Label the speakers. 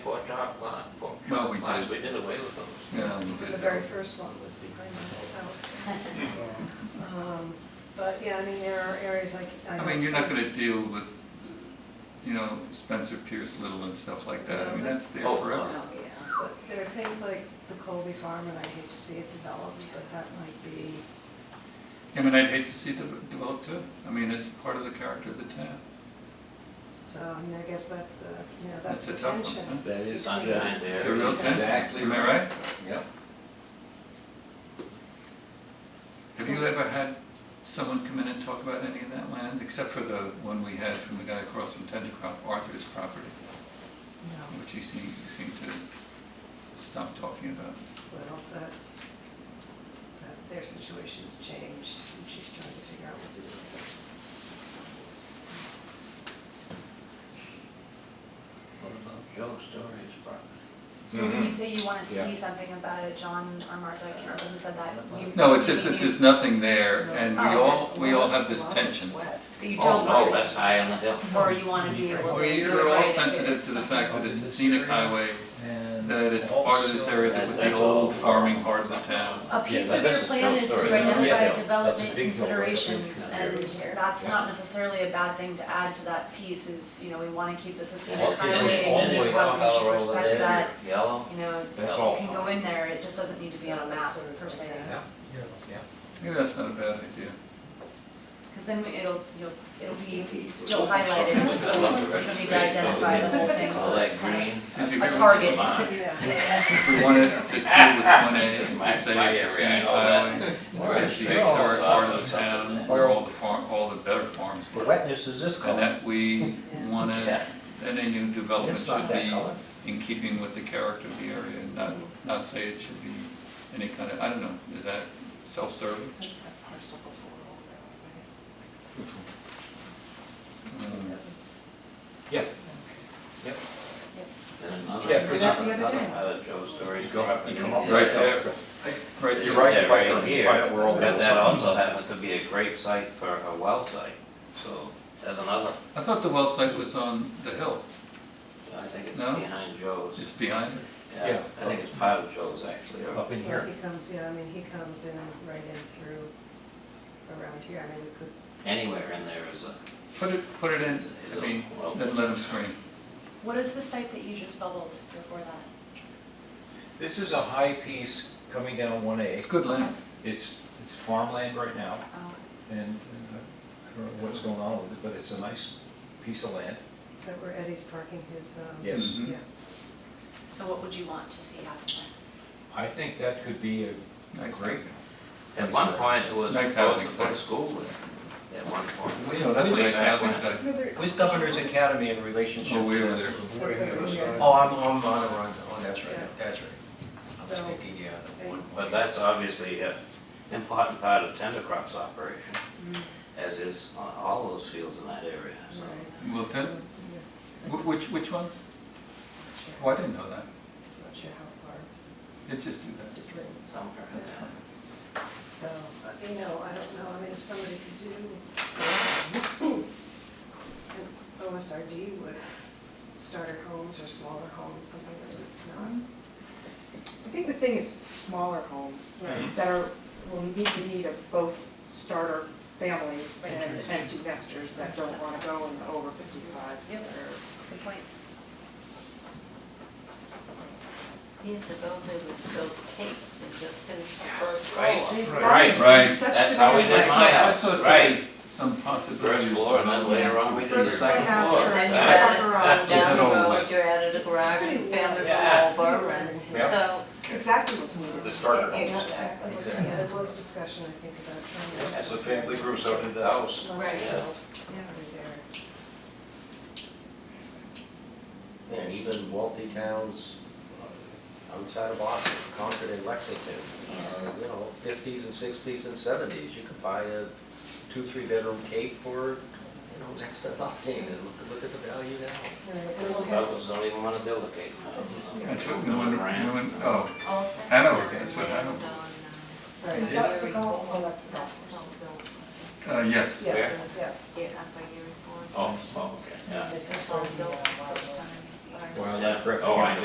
Speaker 1: Well, we
Speaker 2: Last
Speaker 1: did.
Speaker 2: we did away with those.
Speaker 1: Yeah, we
Speaker 3: The
Speaker 1: did
Speaker 3: very
Speaker 1: that.
Speaker 3: first one was behind my old house. Um, But, yeah, I mean, there are areas like.
Speaker 1: I mean, you're not gonna deal with, you know, Spencer Pierce Little and stuff like that, I mean, that's there
Speaker 2: Oh,
Speaker 1: forever.
Speaker 3: Yeah, but there are things like the Colby Farm, and I hate to see it developed, but that might be,
Speaker 1: I mean, I'd hate to see it develop too, I mean, it's part of the character of the town.
Speaker 3: so, I mean, I guess that's the, you know, that's
Speaker 1: That's
Speaker 3: the
Speaker 1: a tough one,
Speaker 3: tension.
Speaker 4: That is,
Speaker 2: It's
Speaker 4: yeah.
Speaker 2: on behind
Speaker 1: It's a real
Speaker 2: there.
Speaker 4: It's exactly
Speaker 1: tension, am I right?
Speaker 4: Yep.
Speaker 1: Have you ever had someone come in and talk about any of that land, except for the one we had from the guy across from Tendercroft, Arthur's property,
Speaker 3: No,
Speaker 1: which he seemed, he seemed to stop talking about?
Speaker 3: well, that's, that their situation's changed, and she's trying to figure out what to do with
Speaker 2: What about Joe Story's property?
Speaker 5: So when you
Speaker 4: Mhm.
Speaker 5: say you want to see
Speaker 4: Yeah.
Speaker 5: something about it, John or Martha, I can't remember who said that. you-
Speaker 1: No, it's just that
Speaker 5: you-
Speaker 1: there's nothing
Speaker 3: it.
Speaker 1: there, and we
Speaker 5: Oh,
Speaker 1: all, we all have this
Speaker 3: Well, it's
Speaker 1: tension.
Speaker 3: wet.
Speaker 5: That you
Speaker 2: Oh,
Speaker 5: don't
Speaker 2: no,
Speaker 5: want,
Speaker 2: that's high on the hill.
Speaker 5: or you want to be able to
Speaker 1: We
Speaker 5: do it
Speaker 1: are all
Speaker 5: right if it-
Speaker 1: sensitive to the fact that it's a scenic highway,
Speaker 4: And
Speaker 1: that it's part of this
Speaker 4: also-
Speaker 1: area that was the
Speaker 2: That's
Speaker 1: old
Speaker 2: all.
Speaker 1: farming part of the town.
Speaker 5: A
Speaker 2: Yeah,
Speaker 5: piece
Speaker 2: but
Speaker 5: of your
Speaker 2: this is
Speaker 5: plan
Speaker 2: Joe's
Speaker 5: is to
Speaker 2: story.
Speaker 4: Yeah,
Speaker 5: identify
Speaker 4: yeah. That's a
Speaker 5: development
Speaker 4: big hill, right?
Speaker 5: considerations,
Speaker 4: Yeah.
Speaker 5: and
Speaker 4: Yeah.
Speaker 5: that's
Speaker 4: Yeah.
Speaker 5: not necessarily a bad thing to add to that piece is, you know, we want to keep this a
Speaker 2: All the
Speaker 5: scenic
Speaker 2: way
Speaker 5: highway.
Speaker 4: all
Speaker 5: and
Speaker 4: the way
Speaker 5: housing should
Speaker 2: over
Speaker 5: respect
Speaker 2: there,
Speaker 5: that,
Speaker 2: Yellow.
Speaker 5: You know,
Speaker 4: That's
Speaker 5: you
Speaker 4: all.
Speaker 5: can go in there, it just doesn't need to be on a map per se.
Speaker 4: Yeah, yeah.
Speaker 1: Maybe that's not a bad idea.
Speaker 5: Because then it'll, you'll, it'll be still
Speaker 2: Something
Speaker 5: highlighted, and
Speaker 2: like
Speaker 5: so
Speaker 2: that.
Speaker 5: you need to identify the whole thing,
Speaker 2: All
Speaker 5: so
Speaker 2: that
Speaker 5: it's kind
Speaker 2: green.
Speaker 1: Did you hear
Speaker 5: of a
Speaker 1: what-
Speaker 5: target.
Speaker 2: Vermont.
Speaker 3: Yeah.
Speaker 1: If we want to just deal with one A,
Speaker 2: My-
Speaker 1: just say
Speaker 2: my
Speaker 1: it's a
Speaker 2: area, I
Speaker 1: scenic
Speaker 2: know that.
Speaker 1: highway,
Speaker 2: Or
Speaker 1: it's the
Speaker 2: it's
Speaker 1: historic
Speaker 2: all
Speaker 1: part
Speaker 2: about
Speaker 1: of the town,
Speaker 2: something.
Speaker 1: where all the farm, all the better farms
Speaker 4: The
Speaker 1: were.
Speaker 4: wetness is this
Speaker 1: And
Speaker 4: color.
Speaker 1: that we want to,
Speaker 2: Yeah.
Speaker 1: that any new development
Speaker 4: It's not
Speaker 1: should
Speaker 4: that color.
Speaker 1: be in keeping with the character of the area, and not, not say it should be any kind of, I don't know, is that self-serving?
Speaker 3: What is that parcel before all that?
Speaker 1: Mm.
Speaker 4: Yeah.
Speaker 2: And another-
Speaker 4: Yeah, 'cause
Speaker 3: you-
Speaker 2: another part of Joe Story's property.
Speaker 1: Right there, right
Speaker 2: You're
Speaker 1: there.
Speaker 2: right,
Speaker 4: Right
Speaker 2: right
Speaker 4: there,
Speaker 2: here,
Speaker 4: right where all the
Speaker 2: but that
Speaker 4: wells are.
Speaker 2: also happens to be a great site for a well site, so there's another,
Speaker 1: I thought the well site was on the hill,
Speaker 2: I think it's
Speaker 1: No?
Speaker 2: behind Joe's.
Speaker 1: it's behind it.
Speaker 2: Yeah, I think it's part of Joe's actually, or-
Speaker 4: Up in
Speaker 3: Well,
Speaker 4: here.
Speaker 3: he comes, yeah, I mean, he comes in right in through around here, I mean, we could,
Speaker 2: anywhere in there is a,
Speaker 1: Put it, put it in,
Speaker 2: is is
Speaker 1: I
Speaker 2: a
Speaker 1: mean,
Speaker 2: well.
Speaker 1: then let them scream.
Speaker 5: What is the site that you just bubbled before that?
Speaker 4: This is a high piece coming down one A.
Speaker 1: It's good land.
Speaker 4: It's, it's farmland right now,
Speaker 5: Oh,
Speaker 4: and and uh, I don't know what's going on with it, but it's a nice piece of land.
Speaker 3: is that where Eddie's parking his, um?
Speaker 4: Yes.
Speaker 1: Mhm.
Speaker 3: Yeah.
Speaker 5: So what would you want to see happen there?
Speaker 4: I think that could be a
Speaker 1: Nice.
Speaker 4: great.
Speaker 2: At one point, it was
Speaker 1: Nice
Speaker 2: supposed
Speaker 1: housing
Speaker 2: to put a
Speaker 1: site.
Speaker 2: school there, at one point.
Speaker 1: No, Oh, that's a nice
Speaker 2: Exactly.
Speaker 1: housing site.
Speaker 3: No, there-
Speaker 6: Who's Governor's Academy in relationship?
Speaker 1: Oh, we
Speaker 6: to-
Speaker 1: were there.
Speaker 3: That's over here.
Speaker 6: Oh, I'm, I'm on Arundel, oh, that's right,
Speaker 3: Yeah.
Speaker 6: that's right. I was
Speaker 3: So-
Speaker 6: thinking, yeah. the one
Speaker 2: But
Speaker 6: point.
Speaker 2: that's obviously an important part of Tender Crop's operation,
Speaker 7: Mm-hmm.
Speaker 2: as is on all those fields in that area, so.
Speaker 3: Right.
Speaker 1: Well,
Speaker 3: Yeah.
Speaker 1: then, wh- which, which ones? Oh,
Speaker 3: Not
Speaker 1: I didn't know that.
Speaker 3: sure- Not sure how far
Speaker 1: They just do
Speaker 3: to
Speaker 1: that.
Speaker 3: drink,
Speaker 2: Somewhere in there.
Speaker 3: so, uh, you know, I don't know, I mean, if somebody could do an OSRD with starter homes or smaller homes, something that was not,
Speaker 8: Mm-hmm. I think the thing is smaller homes that are, will meet the need of both starter families and empty nesters that don't want to go in the over fifty-fives.
Speaker 5: Yep. Good point.
Speaker 7: Years ago, they would build cakes and just finish the first floor.
Speaker 2: Right.
Speaker 1: Right. Right.
Speaker 2: That's how we did my
Speaker 1: I
Speaker 2: house,
Speaker 1: thought there
Speaker 2: right.
Speaker 1: was some possibility.
Speaker 2: First floor, and then later on, we did the
Speaker 8: First
Speaker 2: second
Speaker 8: floor,
Speaker 2: floor.
Speaker 8: and
Speaker 7: then you
Speaker 2: Exactly.
Speaker 7: had
Speaker 8: garage.
Speaker 1: Is
Speaker 7: Down
Speaker 1: it
Speaker 7: the
Speaker 1: all
Speaker 7: road,
Speaker 1: like-
Speaker 7: you added a garage and family
Speaker 2: Yeah.
Speaker 7: were all over and so.
Speaker 8: That's exactly what's needed.
Speaker 9: The starter homes.
Speaker 8: Exactly what's
Speaker 3: yeah,
Speaker 8: needed.
Speaker 3: there was discussion, I think, about trying to.
Speaker 9: As the family grows up into the house,
Speaker 3: Right.
Speaker 2: Yeah.
Speaker 3: there.
Speaker 6: And even wealthy towns uh, outside of Boston, Concord and Lexington, uh, you know, fifties and sixties and seventies, you could buy a two, three bedroom cake for, you know, next to nothing, and look, look at the value now.
Speaker 3: Right, and we'll have-
Speaker 2: Others don't even want to build a cake.
Speaker 1: That's what no one, no one, oh,
Speaker 7: Oh,
Speaker 1: Hanover, that's what
Speaker 7: and,
Speaker 1: Hanover.
Speaker 7: uh,
Speaker 3: right,
Speaker 4: It
Speaker 3: that's
Speaker 4: is-
Speaker 3: the golf, oh, that's the
Speaker 7: That
Speaker 3: golf.
Speaker 7: was all built,
Speaker 1: uh, yes.
Speaker 3: Yes, yeah.
Speaker 7: yeah, up by Erie Ford.
Speaker 2: Oh, oh, okay, yeah.
Speaker 7: This is all built at the time. but I-
Speaker 4: Well,
Speaker 2: Yeah.
Speaker 4: that
Speaker 2: Oh, I know.